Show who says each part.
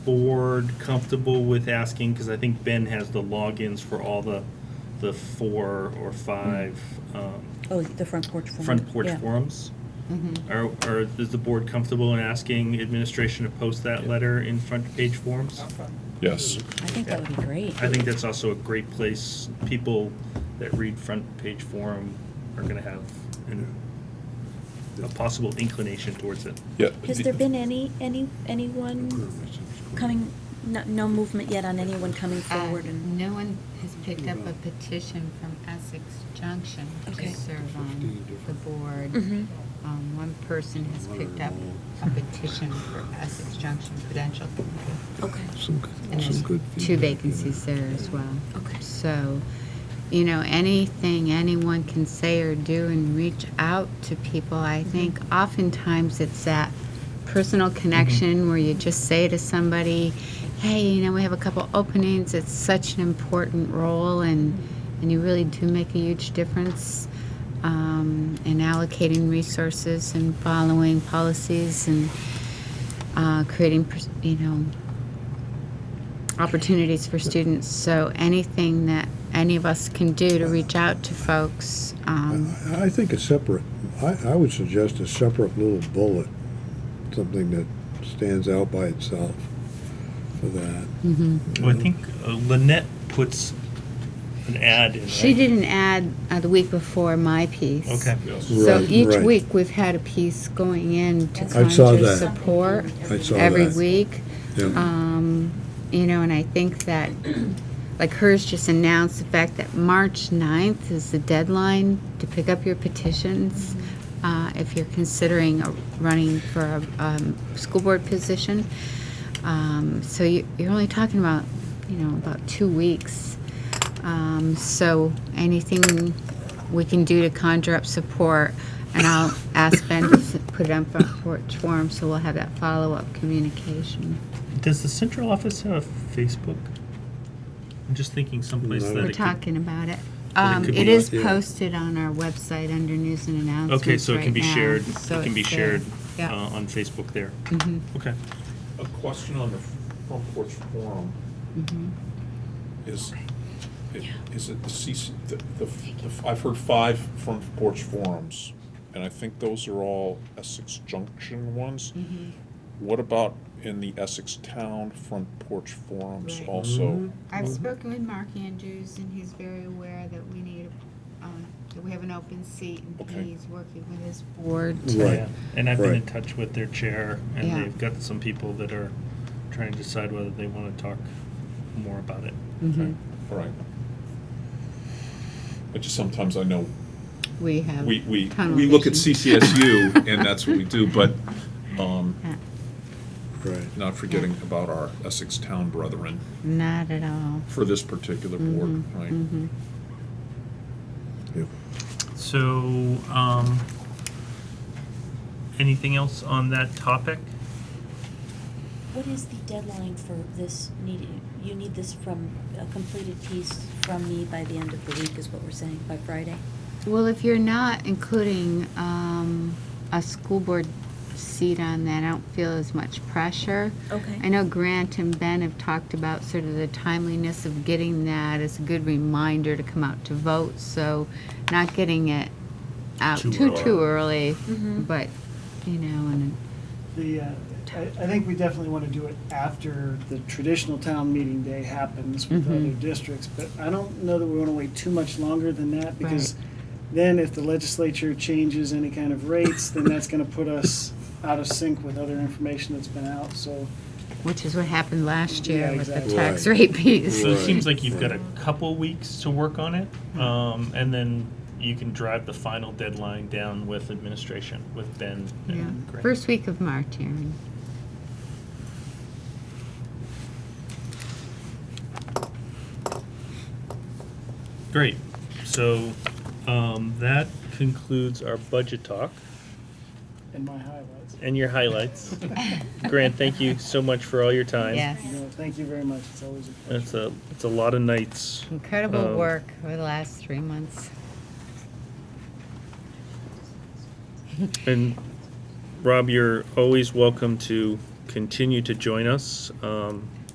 Speaker 1: board comfortable with asking, because I think Ben has the logins for all the, the four or five um,
Speaker 2: Oh, the front porch forum.
Speaker 1: front porch
Speaker 2: yeah. Mm-hmm.
Speaker 1: forums? Are, are, is the board comfortable in asking administration to post that letter in front page forums?
Speaker 3: Yes.
Speaker 2: I think that would be great.
Speaker 1: I think that's also a great place, people that read front page forum are gonna have an- a possible inclination towards it.
Speaker 3: Yeah.
Speaker 4: Has there been any, any, anyone coming, no, no movement yet on anyone coming forward
Speaker 5: Uh,
Speaker 4: and?
Speaker 5: No one has picked up a petition from Essex Junction to
Speaker 4: Okay.
Speaker 5: serve on the board.
Speaker 4: Mhm.
Speaker 5: Um, One person has picked up a petition for Essex Junction Prudential Committee.
Speaker 4: Okay,
Speaker 6: Some,
Speaker 5: And
Speaker 6: good-
Speaker 5: there's
Speaker 6: some good
Speaker 5: two
Speaker 6: feedback, you know.
Speaker 5: vacancies there as well.
Speaker 4: Okay.
Speaker 5: So, you know, anything anyone can say or do and reach out to people, I think oftentimes it's that personal
Speaker 6: Mm-hmm.
Speaker 5: connection where you just say to somebody, hey, you know, we have a couple openings, it's such an important role and, and you really do make a huge difference um, in allocating resources and following policies and uh, creating, pers- you know, opportunities for students. So anything that any of us can do to reach out to folks. Um,
Speaker 6: I I think a separate, I, I would suggest a separate little bullet, something that stands out by itself for that.
Speaker 1: Well, I think uh, Lynette puts an ad in,
Speaker 5: she
Speaker 1: right?
Speaker 5: did an ad uh, the week before my piece.
Speaker 1: Okay.
Speaker 5: So
Speaker 6: Right,
Speaker 5: each
Speaker 6: right.
Speaker 5: week we've had a piece going in to
Speaker 6: I saw
Speaker 5: conjure
Speaker 6: that.
Speaker 5: support
Speaker 6: I saw
Speaker 5: every
Speaker 6: that.
Speaker 5: week.
Speaker 6: Yeah.
Speaker 5: Um, you know, and I think that, like hers just announced the fact that March 9th is the deadline to pick up your petitions. Uh, if you're considering a- running for a, um, school board position. Um, so you, you're only talking about, you know, about two weeks. Um, so anything we can do to conjure up support, and I'll ask Ben to s- put it on front porch forum, so we'll have that follow-up communication.
Speaker 1: Does the central office have a Facebook? I'm just thinking someplace
Speaker 6: No.
Speaker 1: that
Speaker 5: We're
Speaker 1: it could.
Speaker 5: talking about it.
Speaker 1: Well, it
Speaker 5: Um,
Speaker 1: could
Speaker 5: it
Speaker 1: be-
Speaker 5: is
Speaker 6: yeah.
Speaker 5: posted on our website under news and announcements
Speaker 1: Okay, so it can
Speaker 5: right
Speaker 1: be
Speaker 5: now,
Speaker 1: shared, it
Speaker 5: so
Speaker 1: can be
Speaker 5: it's there.
Speaker 1: shared uh,
Speaker 5: Yeah.
Speaker 1: on Facebook there.
Speaker 5: Mhm.
Speaker 1: Okay.
Speaker 3: A question on the front porch forum.
Speaker 4: Mm-hmm.
Speaker 3: Is, it- is it the CC, the, the- the- I've heard five front porch forums, and I think those are all Essex Junction ones.
Speaker 4: Mm-hmm.
Speaker 3: What about in the Essex Town front porch forums
Speaker 5: Right.
Speaker 3: also?
Speaker 5: I've spoken with Mark Andrews, and he's very aware that we need, um, that we have an open seat, and
Speaker 3: Okay.
Speaker 5: he's working with his board.
Speaker 6: Right.
Speaker 1: Yeah, And I've been in
Speaker 6: Right.
Speaker 1: touch with their chair, and
Speaker 5: Yeah.
Speaker 1: they've got some people that are trying to decide whether they want to talk more about it.
Speaker 5: Mm-hmm.
Speaker 3: Okay, All right. I just, sometimes I know
Speaker 5: We have.
Speaker 3: we, we,
Speaker 5: tunnel
Speaker 3: we look at
Speaker 5: vision.
Speaker 3: CCSU and that's what we do, but, um,
Speaker 5: Uh,
Speaker 6: Right.
Speaker 3: not forgetting about our Essex Town brethren
Speaker 5: Not at all.
Speaker 3: for this particular board, right?
Speaker 6: Yep.
Speaker 1: So, um, anything else on that topic?
Speaker 2: What is the deadline for this need, you need this from, a completed piece from me by the end of the week is what we're saying, by Friday?
Speaker 5: Well, if you're not including um, a school board seat on that, I don't feel as much pressure.
Speaker 2: Okay.
Speaker 5: I know Grant and Ben have talked about sort of the timeliness of getting that as a good reminder to come out to vote, so not getting it out
Speaker 1: Too
Speaker 5: too,
Speaker 1: early.
Speaker 5: too early,
Speaker 7: Mm-hmm.
Speaker 5: but, you know, and
Speaker 7: The, uh, I, I think we definitely want to do it after the traditional town meeting day happens with
Speaker 5: Mhm.
Speaker 7: other districts, but I don't know that we want to wait too much longer than that because then if the legislature changes any kind of rates, then that's going to put us out of sync with other information that's been out, so.
Speaker 5: which is what happened last year
Speaker 7: Yeah,
Speaker 5: with the
Speaker 7: exactly.
Speaker 5: tax
Speaker 6: Right.
Speaker 5: rate piece.
Speaker 1: So it
Speaker 6: Right.
Speaker 1: seems like you've got a couple weeks to work on it, um, and then you can drive the final deadline down with administration, with Ben
Speaker 5: Yeah.
Speaker 1: and Grant.
Speaker 5: First week of March, Aaron.
Speaker 1: Great. So, um, that concludes our budget talk
Speaker 7: In my highlights.
Speaker 1: and your highlights. Grant, thank you so much for all your time.
Speaker 7: You know, thank you very much. It's always a pleasure.
Speaker 1: It's a, it's a lot of nights.
Speaker 5: Incredible
Speaker 1: Um,
Speaker 5: work over the last three months.
Speaker 1: And Rob, you're always welcome to continue to join us. Um,